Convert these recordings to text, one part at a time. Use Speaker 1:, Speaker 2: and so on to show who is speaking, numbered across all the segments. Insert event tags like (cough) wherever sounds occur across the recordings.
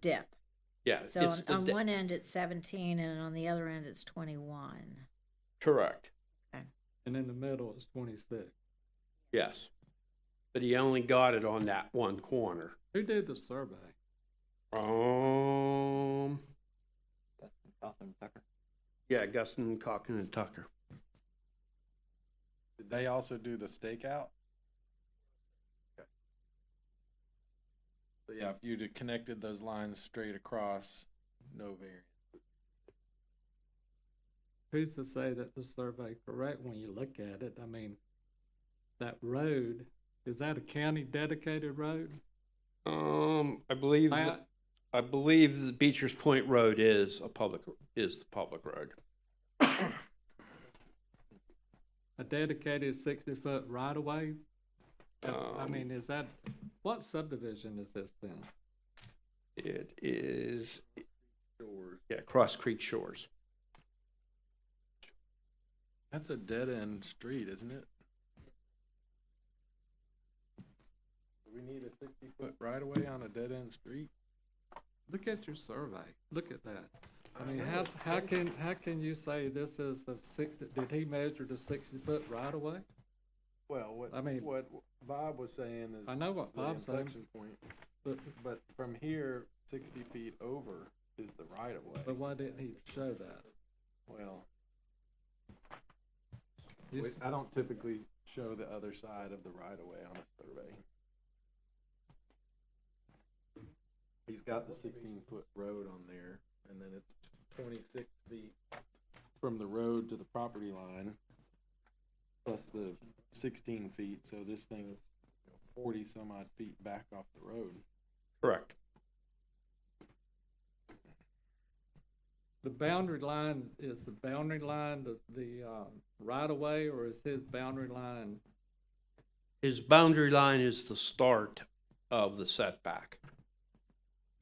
Speaker 1: dip.
Speaker 2: Yeah,
Speaker 1: So
Speaker 2: Uh, it's
Speaker 1: on,
Speaker 2: the
Speaker 1: on
Speaker 2: de-
Speaker 1: one end it's 17 and on the other end it's 21.
Speaker 2: correct.
Speaker 3: And in the middle is twenty-six.
Speaker 2: Yes, but he only got it on that one corner.
Speaker 3: Who did the survey?
Speaker 2: Um,
Speaker 4: Gotham Tucker.
Speaker 2: yeah, Guston, Cochran, and Tucker.
Speaker 5: Did they also do the stakeout? Okay. So yeah, if you'd have connected those lines straight across, no variance.
Speaker 3: Who's to say that the survey correct when you look at it? I mean, that road, is that a county dedicated road?
Speaker 2: Um, I believe that-
Speaker 3: Plat?
Speaker 2: I believe the Beecher's Point Road is a public is the public road.
Speaker 3: a dedicated sixty foot right of way? I
Speaker 2: Um,
Speaker 3: mean, is that, what subdivision is this then?
Speaker 2: It is. Yeah, Cross Creek Shores.
Speaker 5: That's a dead end street, isn't it? Do we need a sixty foot right away on a dead end street?
Speaker 3: Look at your survey, look at that. I mean, how, how can, how can you say this is the six, did he measure the sixty foot right of way?
Speaker 5: Well, what,
Speaker 3: I mean-
Speaker 5: what Bob was saying is.
Speaker 3: I know what
Speaker 5: the
Speaker 3: Bob's saying.
Speaker 5: inflection Point,
Speaker 3: But,
Speaker 5: but from here, sixty feet over is the right of way.
Speaker 3: but why didn't he show that?
Speaker 5: Well,
Speaker 3: You
Speaker 5: we-
Speaker 3: s-
Speaker 5: I don't typically show the other side of the right of way on a survey. He's got the sixteen foot road on there and then it's twenty-six feet from the road to the property line. Plus the sixteen feet, so this thing's forty some odd feet back off the road.
Speaker 2: Correct.
Speaker 3: The boundary line, is the boundary line the, the, um, right of way or is his boundary line?
Speaker 2: His boundary line is the start of the setback.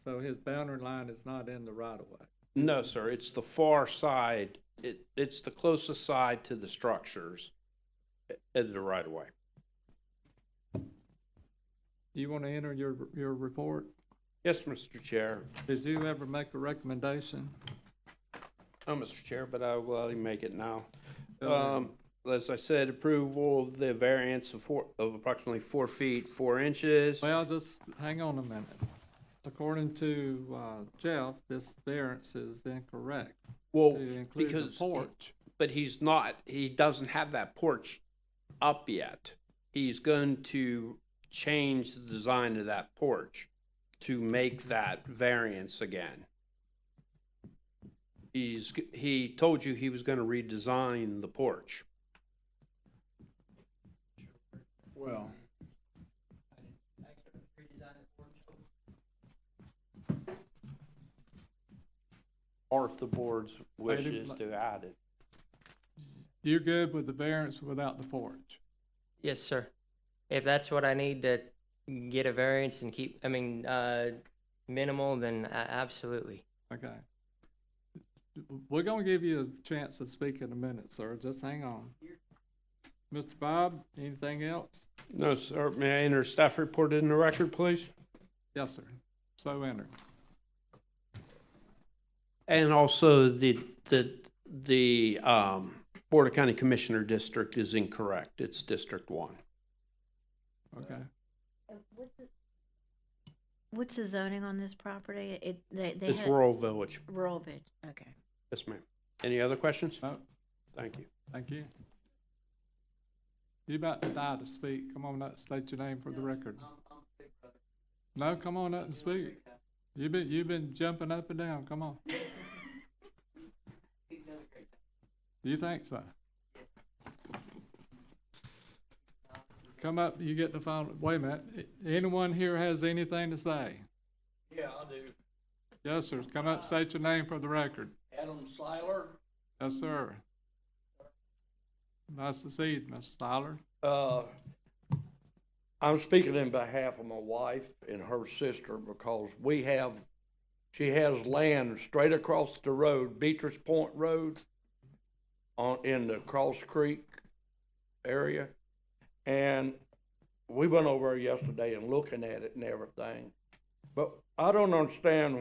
Speaker 3: So his boundary line is not in the right of way.
Speaker 2: No, sir, it's the far side. It, it's the closest side to the structures at the right of way.
Speaker 3: Do you wanna enter your, your report?
Speaker 2: Yes, Mr. Chair.
Speaker 3: Did you ever make a recommendation?
Speaker 2: Oh, Mr. Chair, but I will make it now.
Speaker 3: Go ahead.
Speaker 2: Um, as I said, approval of the variance of four, of approximately four feet, four inches.
Speaker 3: Well, just hang on a minute. According to uh, Jeff, this variance is incorrect
Speaker 2: Well,
Speaker 3: to include the
Speaker 2: Oh, because,
Speaker 3: porch.
Speaker 2: but he's not, he doesn't have that porch up yet. He's going to change the design of that porch to make that variance again. He's, g- he told you he was gonna redesign the porch.
Speaker 5: Well.
Speaker 2: Or if the board's wish
Speaker 3: didn't
Speaker 2: is
Speaker 3: li-
Speaker 2: to add it.
Speaker 3: You're good with the variance without the porch?
Speaker 4: Yes, sir. If that's what I need to get a variance and keep, I mean, uh, minimal, then a- absolutely.
Speaker 3: Okay. We're gonna give you a chance to speak in a minute, sir. Just hang on. Mr. Bob, anything else?
Speaker 2: No, sir, may I enter staff report in the record, please?
Speaker 3: Yes, sir. So enter.
Speaker 2: And also the, the, the, um, Board of County Commissioner District is incorrect. It's District One.
Speaker 3: Okay.
Speaker 1: What's the zoning on this property? It they they
Speaker 2: It's
Speaker 1: had
Speaker 2: rural village.
Speaker 1: rural village. Okay.
Speaker 2: Yes, ma'am. Any other questions?
Speaker 3: No,
Speaker 2: Thank you.
Speaker 3: thank you. You about to die to speak. Come on up, state your name for the record. No, come on up and speak. You've been, you've been jumping up and down, come
Speaker 6: (laughs)
Speaker 3: on. You think so? Come up, you get the final, wait a minute, A- anyone here has anything to say?
Speaker 6: Yeah, I do.
Speaker 3: Yes, sir, come up, state your name for the record.
Speaker 6: Adam Seiler.
Speaker 3: Yes, sir. Nice to see you, Mr. Styler.
Speaker 6: Uh, I'm speaking in behalf of my wife and her sister because we have, she has land straight across the road, Beatrice Point Road, on, in the Cross Creek area. And we went over yesterday and looking at it and everything. But I don't understand